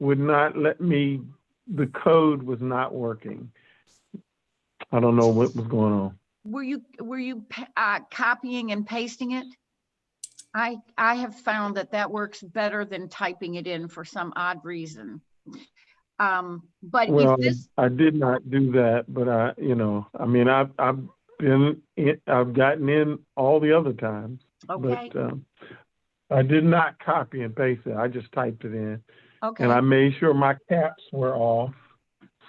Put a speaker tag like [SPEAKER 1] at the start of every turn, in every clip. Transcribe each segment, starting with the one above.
[SPEAKER 1] would not let me, the code was not working. I don't know what was going on.
[SPEAKER 2] Were you, were you pa- uh, copying and pasting it? I, I have found that that works better than typing it in for some odd reason. Um, But
[SPEAKER 1] Well,
[SPEAKER 2] if this,
[SPEAKER 1] I did not do that, but I, you know, I mean, I've, I've been, in- I've gotten in all the other times.
[SPEAKER 2] okay,
[SPEAKER 1] But, um, I did not copy and paste it. I just typed it in
[SPEAKER 2] okay,
[SPEAKER 1] and I made sure my caps were off.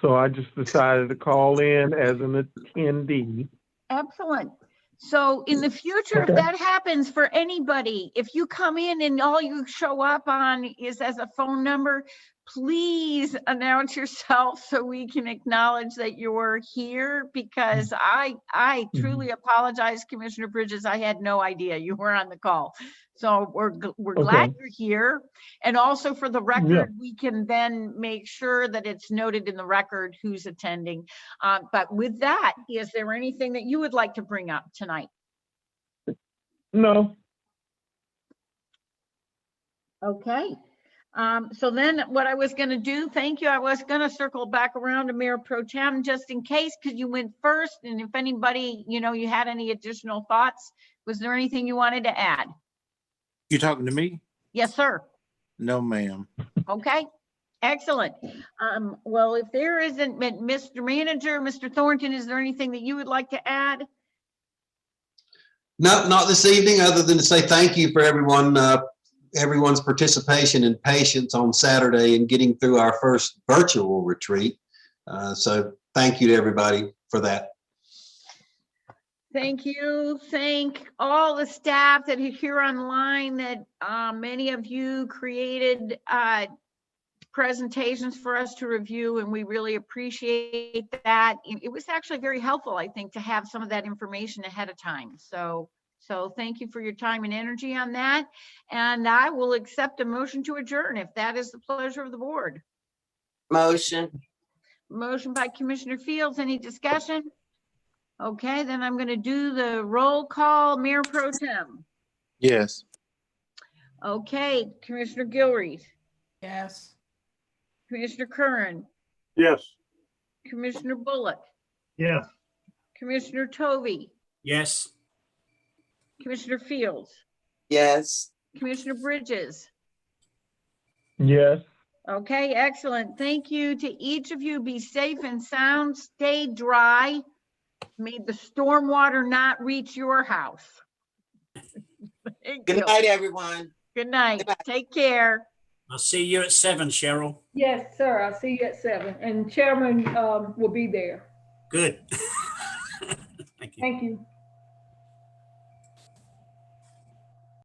[SPEAKER 1] So I just decided to call in as an attendee.
[SPEAKER 2] excellent. So in the future, if
[SPEAKER 1] Okay.
[SPEAKER 2] that happens for anybody, if you come in and all you show up on is as a phone number, please announce yourself so we can acknowledge that you're here because I, I
[SPEAKER 1] Mhm.
[SPEAKER 2] truly apologize, Commissioner Bridges. I had no idea you were on the call. So we're, gl- we're glad you're here. And also for the record, we can then make sure that it's noted in the record who's attending. Uh, But with that, is there anything that you would like to bring up tonight?
[SPEAKER 1] No,
[SPEAKER 2] Okay, um, so then what I was gonna do, thank you, I was gonna circle back around to Mayor Pro Tem just in case, because you went first, and if anybody, you know, you had any additional thoughts, was there anything you wanted to add?
[SPEAKER 3] You talking to me?
[SPEAKER 2] Yes, sir.
[SPEAKER 3] No, ma'am.
[SPEAKER 2] Okay, excellent. Um, well, if there isn't, Mi- Mr. Manager, Mr. Thornton, is there anything that you would like to add?
[SPEAKER 4] No, not this evening, other than to say thank you for everyone, uh, everyone's participation and patience on Saturday and getting through our first virtual retreat. Uh, so thank you to everybody for that.
[SPEAKER 2] Thank you. Thank all the staff that are here online that uh, many of you created uh, presentations for us to review, and we really appreciate that. It it was actually very helpful, I think, to have some of that information ahead of time. So, so thank you for your time and energy on that. And I will accept a motion to adjourn if that is the pleasure of the board.
[SPEAKER 5] Motion,
[SPEAKER 2] Motion by Commissioner Fields, any discussion? Okay, then I'm gonna do the roll call, Mayor Pro Tem.
[SPEAKER 3] Yes.
[SPEAKER 2] Okay, Commissioner Gilreys,
[SPEAKER 6] Yes.
[SPEAKER 2] Commissioner Curran,
[SPEAKER 7] Yes.
[SPEAKER 2] Commissioner Bullock,
[SPEAKER 7] Yes.
[SPEAKER 2] Commissioner Tovey,
[SPEAKER 7] Yes.
[SPEAKER 2] Commissioner Fields,
[SPEAKER 5] yes.
[SPEAKER 2] Commissioner Bridges.
[SPEAKER 1] yes.
[SPEAKER 2] Okay, excellent. Thank you to each of you. Be safe and sound, stay dry. May the stormwater not reach your house. Thank
[SPEAKER 5] Good
[SPEAKER 2] you.
[SPEAKER 5] night, everyone.
[SPEAKER 2] Good night.
[SPEAKER 5] Good night.
[SPEAKER 2] Take care.
[SPEAKER 7] I'll see you at seven, Cheryl.
[SPEAKER 8] Yes, sir. I'll see you at seven and Chairman um, will be there.
[SPEAKER 7] Good. Thank you.
[SPEAKER 8] Thank you.